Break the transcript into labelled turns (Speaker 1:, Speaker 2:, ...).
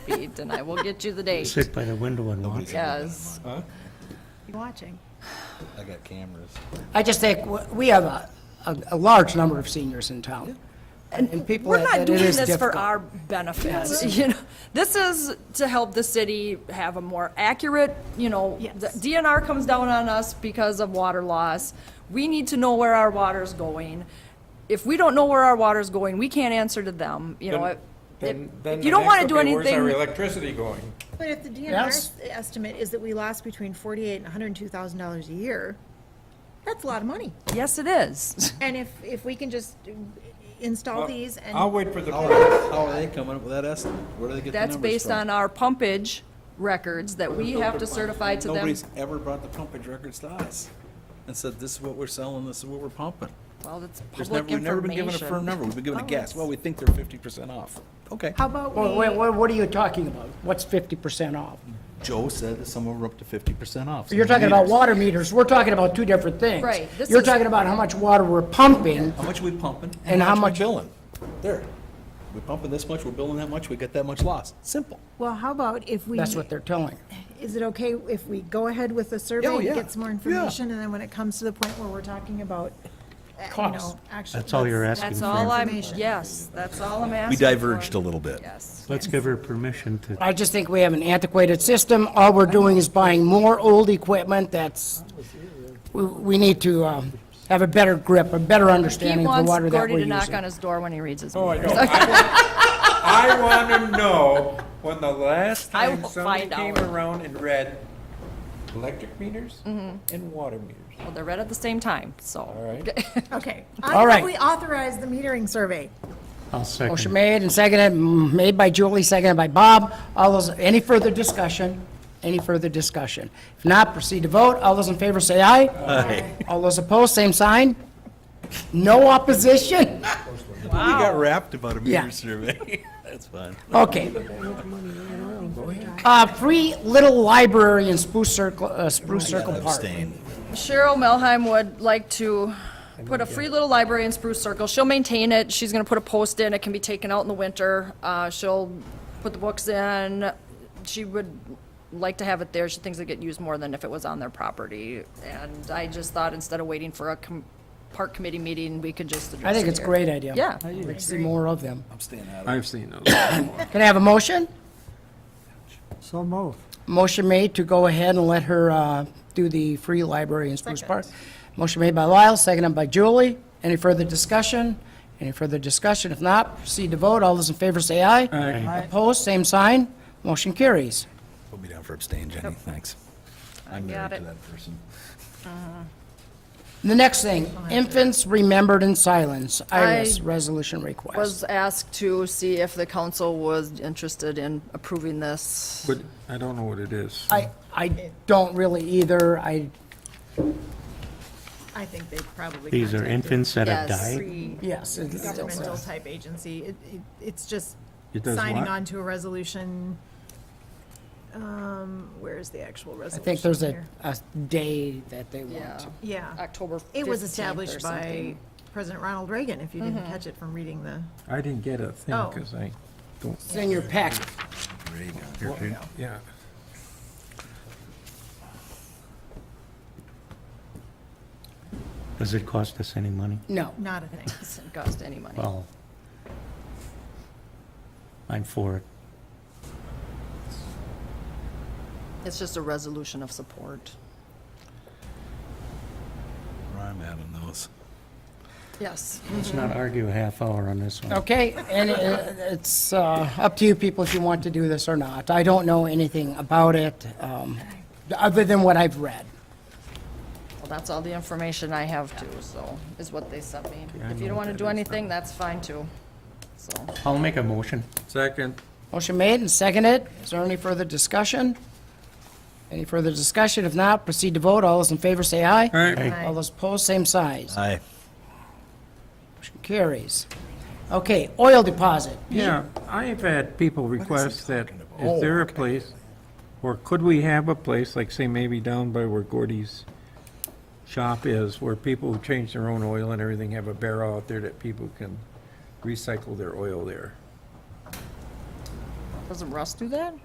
Speaker 1: Beaved, and I will get you the date.
Speaker 2: Sit by the window and watch.
Speaker 1: Yes.
Speaker 3: Watching.
Speaker 4: I got cameras.
Speaker 5: I just think w- we have a, a, a large number of seniors in town. And people,
Speaker 1: We're
Speaker 5: that
Speaker 1: not
Speaker 5: it
Speaker 1: doing
Speaker 5: is
Speaker 1: this for
Speaker 5: difficult.
Speaker 1: our benefit, you know. This is to help the city have a more accurate, you know,
Speaker 3: Yes.
Speaker 1: the DNR comes down on us because of water loss. We need to know where our water's going. If we don't know where our water's going, we can't answer to them, you know.
Speaker 6: Then-
Speaker 1: it-
Speaker 6: Then, then
Speaker 1: it-
Speaker 6: the
Speaker 1: You don't
Speaker 6: next
Speaker 1: want to
Speaker 6: would
Speaker 1: do
Speaker 6: be, Where's our
Speaker 1: anything,
Speaker 6: electricity going?
Speaker 3: But if the
Speaker 5: Yes.
Speaker 3: DNR's estimate is that we lost between forty-eight and hundred and two thousand dollars a year, that's a lot of money.
Speaker 1: yes, it is.
Speaker 3: And if, if we can just install these
Speaker 6: I'll
Speaker 3: and,
Speaker 6: wait for the,
Speaker 4: How are, how are they coming up with that estimate? Where do they get the
Speaker 1: That's
Speaker 4: numbers from?
Speaker 1: based on our pumpage records that we have to certify to them.
Speaker 4: Nobody's ever brought the pumpage records to us and said, this is what we're selling, this is what we're pumping.
Speaker 1: Well, it's public
Speaker 4: There's never, we've
Speaker 1: information.
Speaker 4: never been given a firm number. We've been given a
Speaker 1: Oh,
Speaker 4: guess.
Speaker 1: it's-
Speaker 4: Well, we think they're fifty percent off. Okay.
Speaker 3: how about
Speaker 5: Well, wait,
Speaker 3: we,
Speaker 5: what, what are you talking about? What's fifty percent off?
Speaker 4: Joe said that some of them are up to fifty percent off.
Speaker 5: You're talking about water meters, we're talking about two different things.
Speaker 1: Right, this
Speaker 5: You're
Speaker 1: is-
Speaker 5: talking about how much water we're pumping,
Speaker 4: How much we pumping
Speaker 5: And
Speaker 4: and how
Speaker 5: how
Speaker 4: much we billing. There. We're pumping this much, we're billing that much, we get that much loss. Simple.
Speaker 3: well, how about if we,
Speaker 5: that's what they're telling.
Speaker 3: is it okay if we go ahead with the
Speaker 4: Oh,
Speaker 3: survey and
Speaker 4: yeah.
Speaker 3: get some more
Speaker 4: Yeah.
Speaker 3: information? And then when it comes to the point where we're talking about, uh, you
Speaker 5: Cost.
Speaker 3: know, actually.
Speaker 2: That's all you're asking
Speaker 1: That's all
Speaker 2: for.
Speaker 1: I'm,
Speaker 3: Information.
Speaker 1: yes, that's all I'm asking
Speaker 4: We diverged
Speaker 1: for.
Speaker 4: a little bit.
Speaker 1: Yes.
Speaker 2: Let's give her permission to,
Speaker 5: I just think we have an antiquated system, all we're doing is buying more old equipment that's, we, we need to, um, have a better grip, a better
Speaker 1: He
Speaker 5: understanding of the
Speaker 1: wants
Speaker 5: water that we're
Speaker 1: Gordy to
Speaker 5: using.
Speaker 1: knock on his door when he reads his
Speaker 6: oh, I
Speaker 1: meter.
Speaker 6: know. I want to know when the last
Speaker 1: I
Speaker 6: time
Speaker 1: will
Speaker 6: somebody
Speaker 1: find
Speaker 6: came
Speaker 1: out.
Speaker 6: around and read electric meters and water meters.
Speaker 1: Well, They're read at the same time, so.
Speaker 6: All right?
Speaker 3: Okay.
Speaker 5: All
Speaker 3: I
Speaker 5: right.
Speaker 3: think we authorize the metering survey.
Speaker 2: I'll
Speaker 5: Motion
Speaker 2: second.
Speaker 5: made and seconded, m- made by Julie, seconded by Bob. All those, any further discussion? Any further discussion? If not, proceed to vote. All those in favor say aye. Aye. All those opposed, same sign. No opposition?
Speaker 4: We got wrapped about a
Speaker 5: Yeah.
Speaker 4: meter survey. That's fine.
Speaker 5: Okay. Uh, free little library in Spruce Circle, uh, Spruce Circle Park.
Speaker 4: Abstain.
Speaker 1: Cheryl Melheim would like to put a free little library in Spruce Circle. She'll maintain it. She's gonna put a post in. It can be taken out in the winter. Uh, she'll put the books in. She would like to have it there. She thinks it'd get used more than if it was on their property. And I just thought instead of waiting for a com- park committee meeting, we could just address
Speaker 5: I think
Speaker 1: it
Speaker 5: it's a
Speaker 1: here.
Speaker 5: great idea.
Speaker 1: Yeah.
Speaker 5: I'd like to see more of them.
Speaker 7: I've seen those.
Speaker 5: Can I have a motion?
Speaker 8: So move.
Speaker 5: Motion made to go ahead and let her uh, do the free library in Spruce Park. Motion made by Lyle, seconded by Julie. Any further discussion? Any further discussion? If not, proceed to vote. All those in favor say aye. Aye. Opposed, same sign. Motion carries.
Speaker 4: Put me down for abstain, Jenny, thanks. I'm
Speaker 1: got
Speaker 4: married to
Speaker 1: it.
Speaker 4: that person.
Speaker 5: The next thing, infants remembered in silence, IRIS
Speaker 1: I
Speaker 5: resolution request.
Speaker 1: was asked to see if the council was interested in approving this.
Speaker 7: But I don't know what it is.
Speaker 5: I, I don't really either. I,
Speaker 3: I think they probably.
Speaker 2: These are
Speaker 3: contacted
Speaker 2: infants that have
Speaker 1: Yes.
Speaker 2: died.
Speaker 3: free
Speaker 5: yes, it's-
Speaker 3: governmental type agency. It, it, it's just
Speaker 7: It does
Speaker 3: signing
Speaker 7: what?
Speaker 3: on to a resolution. Um, where is the actual
Speaker 5: I
Speaker 3: resolution?
Speaker 5: think there's a,
Speaker 3: here?
Speaker 5: a day that they
Speaker 1: Yeah,
Speaker 5: want.
Speaker 3: Yeah.
Speaker 1: October 15th
Speaker 3: It was
Speaker 1: or
Speaker 3: established by
Speaker 1: something. Mm-hmm.
Speaker 3: President Ronald Reagan, if you didn't catch it from reading the,
Speaker 7: I didn't get a thing
Speaker 3: Oh.
Speaker 7: because I don't,
Speaker 5: It's in your packet.
Speaker 4: There you go. Here, dude.
Speaker 7: yeah.
Speaker 2: Does it cost us any money?
Speaker 5: No.
Speaker 3: not a thing.
Speaker 1: Doesn't cost any money.
Speaker 2: Well, I'm for it.
Speaker 1: It's just a resolution of support.
Speaker 4: Where I'm at on those.
Speaker 1: Yes.
Speaker 2: Let's not argue a half hour on this one.
Speaker 5: Okay, and it- it's uh, up to you people if you want to do this or not. I don't know anything about it, um, other than what I've read.
Speaker 1: Well, that's all the information I have too, so, is what they sent me. If you don't want to do anything, that's fine too. So,
Speaker 2: I'll make a motion.
Speaker 7: Second,
Speaker 5: Motion made and seconded. Is there any further discussion? Any further discussion? If not, proceed to vote. All those in favor say aye.
Speaker 7: all right.
Speaker 2: Aye.
Speaker 5: All those opposed, same size.
Speaker 4: Aye.
Speaker 5: Motion carries. Okay, oil deposit.
Speaker 7: Yeah, I've had people request that, is there a place, or could we have a place, like say maybe down by where Gordy's shop is, where people who change their own oil and everything have a barrel out there that people can recycle their oil there?
Speaker 1: Doesn't Russ do that?